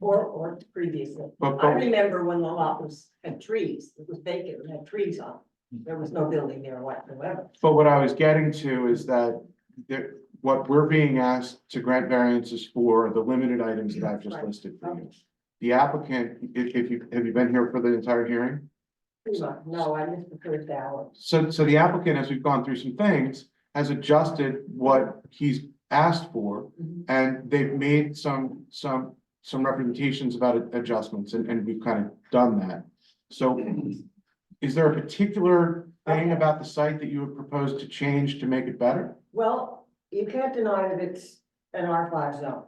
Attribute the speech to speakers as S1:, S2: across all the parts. S1: or, or previously.
S2: But,
S1: I
S2: but
S1: remember when the lot was, had trees, it was vacant, it had trees on, it. there was no building there whatsoever.
S2: But what I was getting to is that there, what we're being asked to grant variances for are the limited items that I've just
S1: Right.
S2: listed for you.
S1: Okay.
S2: The applicant, if, if you, have you been here for the entire hearing?
S1: No, I missed the first hour.
S2: So, so the applicant, as we've gone through some things, has adjusted what he's asked for. And they've made some, some, some representations about ad- adjustments and, and we've kind of done that. So is there a particular thing about the site that you would propose to change to make it better?
S1: Well, you can't deny that it's an R five zone.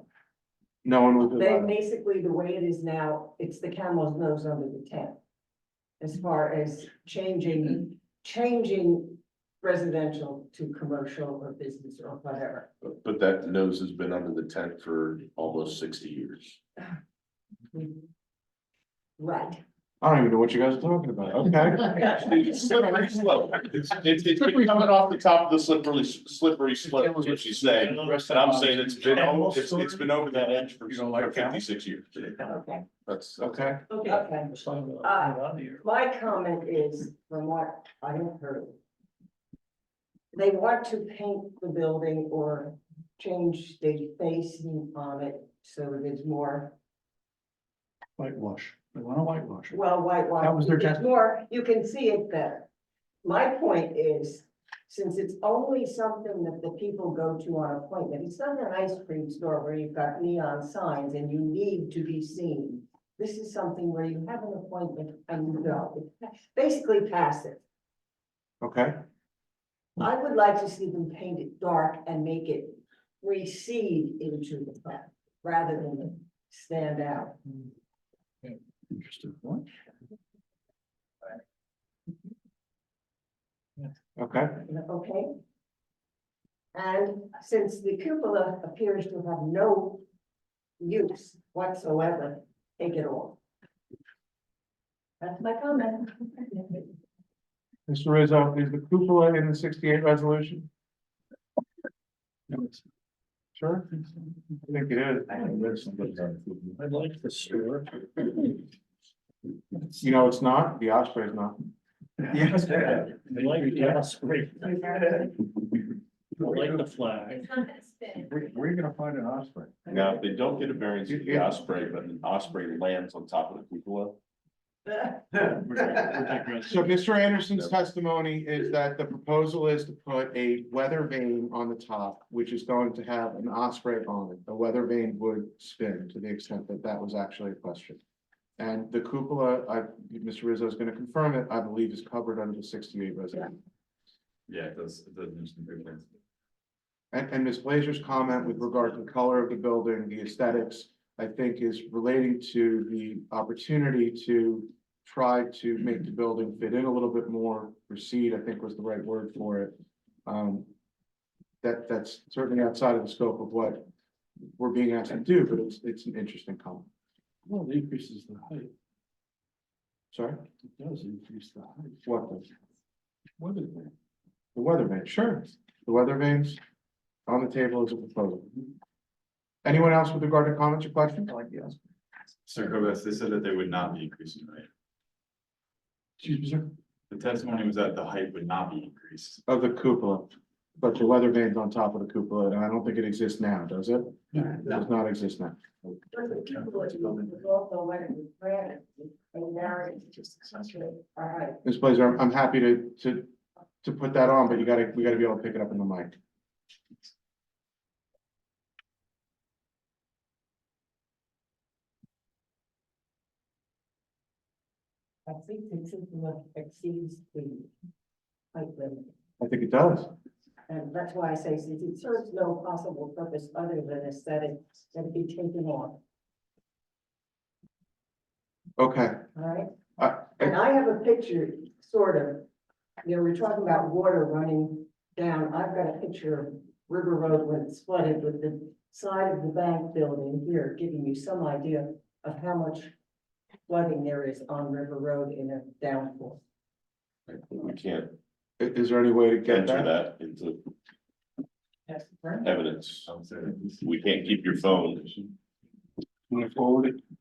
S2: No one will do
S1: They,
S2: that.
S1: basically, the way it is now, it's the camel's nose under the tent. As far as changing, changing residential to commercial or business or whatever.
S3: But- But that nose has been under the tent for almost sixty years.
S1: Right.
S2: I don't even know what you guys are talking about, okay?
S3: It's slippery slope. It's, it's, it's been coming off the top of the slippery, slippery slope, is what she's saying. And I'm saying it's been, al- it's, it's been over that edge for for fifty-six years.
S1: Okay.
S4: uh,
S3: That's,
S2: Okay,
S1: Okay. My comment is, from what I have heard. They want to paint the building or change the facing on it so it is more
S4: Whitewash, they want to whitewash it.
S1: Well, whitewash.
S4: That was their
S1: is
S4: test-
S1: More, you can see it better. My point is, since it's only something that the people go to on appointment, it's not an ice cream store where you've got neon signs and you need to be seen. This is something where you have an appointment and you go, It's basically passive.
S2: okay,
S1: I would like to see them paint it dark and make it recede into the front rather than stand out.
S4: Interesting point.
S2: okay.
S1: okay? And since the cupola appears to have no use whatsoever, take it off. That's my comment.
S2: Mr. Rizzo, is the cupola in the sixty-eight resolution? Sure? I think it is.
S4: I like the store.
S2: You know, it's not, the Osprey's not.
S4: Yes. I like the Osprey. I like the flag.
S5: It's not gonna spin.
S4: Where are you gonna find an Osprey?
S3: now, if they don't get a variance for the osprey, but an osprey lands on top of the cupola.
S2: So Mr. Anderson's testimony is that the proposal is to put a weather vane on the top, which is going to have an osprey on it. The weather vane would spin to the extent that that was actually a question. And the cupola, I, Mr. Rizzo is gonna confirm it, I believe is covered under the sixty-eight resolution.
S3: Yeah, it does, it does mention improvements.
S2: And, and Ms. Blazer's comment with regard to the color of the building, the aesthetics, I think is relating to the opportunity to try to make the building fit in a little bit more, recede, I think was the right word for it. Um, that, that's certainly outside of the scope of what we're being asked to do, but it's, it's an interesting comment.
S4: Well, it increases the height,
S2: Sorry,
S4: it does increase the height.
S2: what, the
S4: What is that?
S2: the weather vane, sure, the weather vanes on the table is a proposal. Anyone else with regard to comments or questions? Like, yes.
S6: So Cobus, they said that they would not be increasing, right?
S4: Excuse me, sir?
S6: The testimony was that the height would not be increased.
S2: Of the cupola, but the weather vane's on top of the cupola, and I don't think it exists now, does it?
S4: No.
S2: It does not exist now.
S1: The cupola is also wet with granite, and now it's just essentially, all right.
S2: Ms. Blazer, I'm, I'm happy to, to, to put that on, but you gotta, we gotta be able to pick it up in the mic.
S1: I think the cupola exceeds the height limit.
S2: I think it does.
S1: And that's why I say, since it serves no possible purpose other than aesthetic, that it be taken off, all
S2: Okay,
S1: right?
S2: I,
S1: And
S2: I,
S1: I have a picture, sort of, you know, we're talking about water running down, I've got a picture of River Road when it's flooded with the side of the bank building here, giving you some idea of how much flooding there is on River Road in a downpour.
S3: We can't
S2: i- is there any way to get
S3: enter
S2: that?
S3: that into
S1: That's right.
S3: evidence. We can't keep your phone.
S4: Want to forward it?